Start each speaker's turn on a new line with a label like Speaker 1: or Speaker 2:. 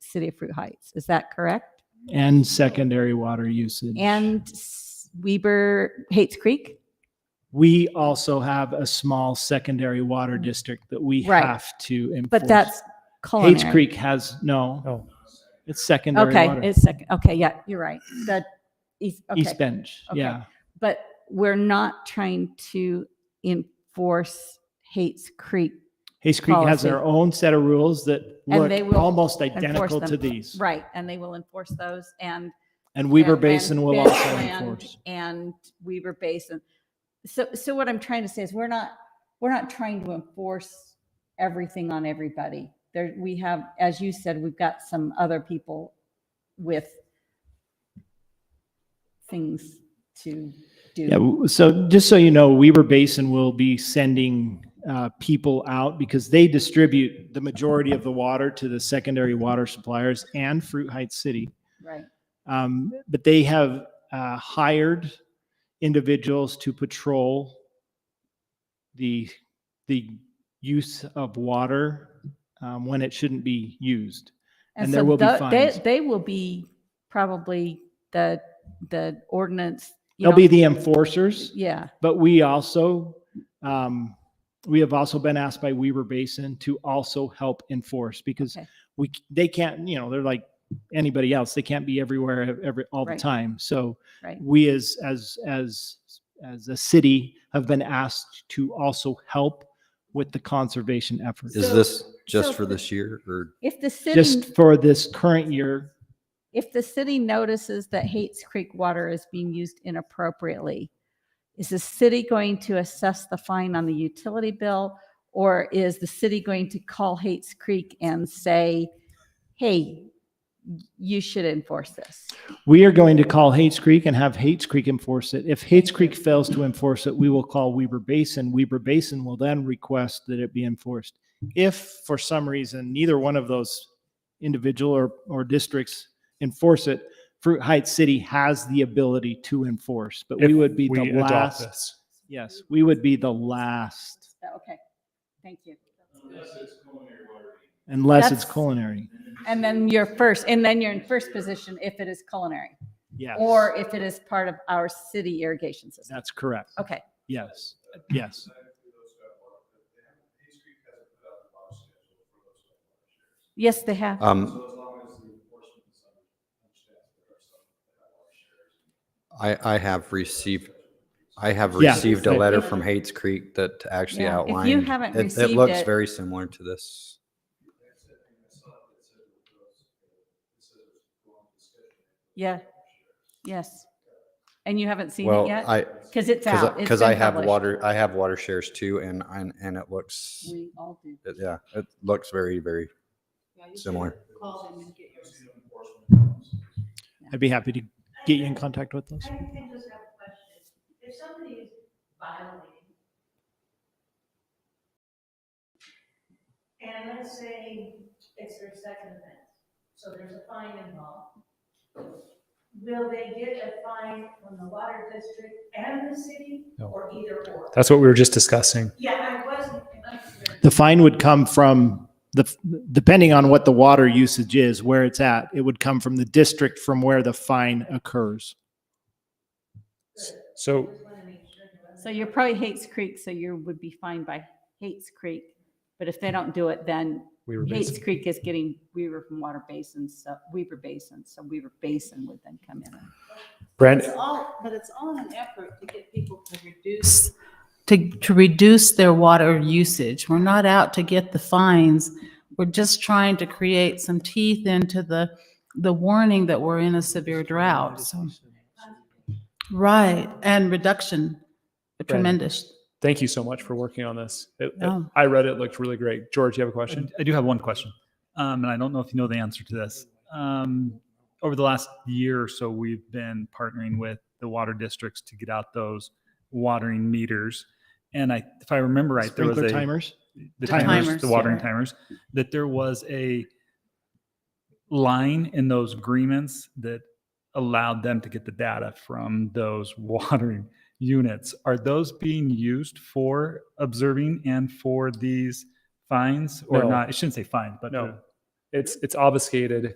Speaker 1: City of Fruit Heights. Is that correct?
Speaker 2: and secondary water usage.
Speaker 1: And S- Weber Hates Creek?
Speaker 2: We also have a small secondary water district that we
Speaker 1: Right.
Speaker 2: have to enforce.
Speaker 1: But that's culinary.
Speaker 2: Hates Creek has, no,
Speaker 3: Oh,
Speaker 2: it's secondary
Speaker 1: Okay,
Speaker 2: water.
Speaker 1: it's second. Okay, yeah, you're right. That East, okay.
Speaker 2: East Bench,
Speaker 1: Okay.
Speaker 2: yeah.
Speaker 1: But we're not trying to enforce Hates Creek.
Speaker 2: Hates Creek has their
Speaker 1: Policy.
Speaker 2: own set of rules that
Speaker 1: And
Speaker 2: look
Speaker 1: they will
Speaker 2: almost
Speaker 1: enforce
Speaker 2: identical to
Speaker 1: them.
Speaker 2: these.
Speaker 1: Right, and they will enforce those and.
Speaker 2: And Weber
Speaker 1: and-
Speaker 2: Basin
Speaker 1: and
Speaker 2: will
Speaker 1: Bend
Speaker 2: also
Speaker 1: Land
Speaker 2: enforce.
Speaker 1: And Weber Basin. So, so what I'm trying to say is we're not, we're not trying to enforce everything on everybody. There, we have, as you said, we've got some other people with things to
Speaker 2: Yeah,
Speaker 1: do.
Speaker 2: w- so just so you know, Weber Basin will be sending uh, people out because they distribute the majority of the water to the secondary water suppliers and Fruit Heights City.
Speaker 1: Right,
Speaker 2: Um, but they have uh, hired individuals to patrol the the use of water um, when it shouldn't be used. And there
Speaker 1: so
Speaker 2: will be
Speaker 1: tho- they-
Speaker 2: fines.
Speaker 1: They will be probably the, the ordinance. you
Speaker 2: They'll
Speaker 1: know,
Speaker 2: be the enforcers.
Speaker 1: Yeah,
Speaker 2: But we also, um, we have also been asked by Weber Basin to also help enforce because
Speaker 1: Okay.
Speaker 2: we, c- they can't, you know, they're like anybody else. They can't be everywhere ev- every, all the
Speaker 1: Right.
Speaker 2: time. So
Speaker 1: right.
Speaker 2: we as, as, as, as a city have been asked to also help with the conservation effort.
Speaker 1: So-
Speaker 4: Is this
Speaker 1: so-
Speaker 4: just for this year or
Speaker 1: If the city.
Speaker 2: Just for this current year,
Speaker 1: If the city notices that Hates Creek water is being used inappropriately, is the city going to assess the fine on the utility bill? Or is the city going to call Hates Creek and say, hey, you should enforce this?
Speaker 2: we are going to call Hates Creek and have Hates Creek enforce it. If Hates Creek fails to enforce it, we will call Weber Basin. Weber Basin will then request that it be enforced. If for some reason neither one of those individual or, or districts enforce it, Fruit Heights City has the ability to enforce, but we
Speaker 3: If
Speaker 2: would be
Speaker 3: we
Speaker 2: the
Speaker 3: adopt
Speaker 2: last.
Speaker 3: this.
Speaker 2: Yes, we would be the last
Speaker 1: Okay, thank you.
Speaker 2: unless it's
Speaker 1: That's-
Speaker 2: culinary.
Speaker 1: And then you're first, and then you're in first position if it is culinary
Speaker 2: Yes.
Speaker 1: or if it is part of our city irrigation system.
Speaker 2: That's correct.
Speaker 1: Okay,
Speaker 2: Yes. Yes.
Speaker 1: yes, they have.
Speaker 4: um I I have received I have
Speaker 2: Yeah.
Speaker 4: received a letter from Hates Creek that actually
Speaker 1: Yeah. If you
Speaker 4: outlined.
Speaker 1: haven't
Speaker 4: it-
Speaker 1: received
Speaker 4: It looks
Speaker 1: it-
Speaker 4: very similar to this.
Speaker 1: Yeah. Yes. And you haven't seen it
Speaker 4: Well,
Speaker 1: yet?
Speaker 4: I,
Speaker 1: Because it's
Speaker 4: cause,
Speaker 1: out.
Speaker 4: I-
Speaker 1: It's
Speaker 4: cause I
Speaker 1: been
Speaker 4: have
Speaker 1: published.
Speaker 4: water, I have water shares too and, and, and it looks,
Speaker 1: We all do.
Speaker 4: it- yeah, it looks very, very similar.
Speaker 2: I'd be happy to get you in contact with us.
Speaker 5: I I just have a question. If somebody is violating, and let's say it's their second offense, so there's a fine involved, will they get a fine from the water district and the city,
Speaker 3: No.
Speaker 5: or either or?
Speaker 3: That's what we were just discussing.
Speaker 5: Yeah, I wasn't, unclear.
Speaker 2: The fine would come from the, depending on what the water usage is, where it's at, it would come from the district from where the fine occurs.
Speaker 3: So
Speaker 5: just want to make sure. there wasn't-
Speaker 1: So you're probably Hates Creek, so you would be fined by Hates Creek. But if they don't do it, then
Speaker 3: we were
Speaker 1: Hates
Speaker 3: basically,
Speaker 1: Creek is getting Weaver from Water Basin, so Weaver Basin, so Weaver Basin would then come in.
Speaker 3: Brand,
Speaker 6: It's all, but it's all an effort to get people to reduce, to, to reduce their water usage. We're not out to get the fines. We're just trying to create some teeth into the, the warning that we're in a severe drought, so. Right, and reduction, tremendous.
Speaker 3: thank you so much for working on this. It- it-
Speaker 6: No.
Speaker 3: I read it, looked really great. George, you have a
Speaker 7: I
Speaker 3: question?
Speaker 7: d- I do have one question, um, and I don't know if you know the answer to this. Um, over the last year or so, we've been partnering with the water districts to get out those watering meters. And I, if I remember right, there was
Speaker 2: Sprinkler
Speaker 7: a
Speaker 2: timers?
Speaker 7: the
Speaker 2: Timers.
Speaker 7: timers,
Speaker 6: Timers,
Speaker 7: the watering
Speaker 6: yeah.
Speaker 7: timers, that there was a line in those agreements that allowed them to get the data from those watering units. Are those being used for observing and for these fines or
Speaker 3: No.
Speaker 7: not? I shouldn't say fine, but
Speaker 3: No.
Speaker 7: the-
Speaker 3: It's, it's obfuscated.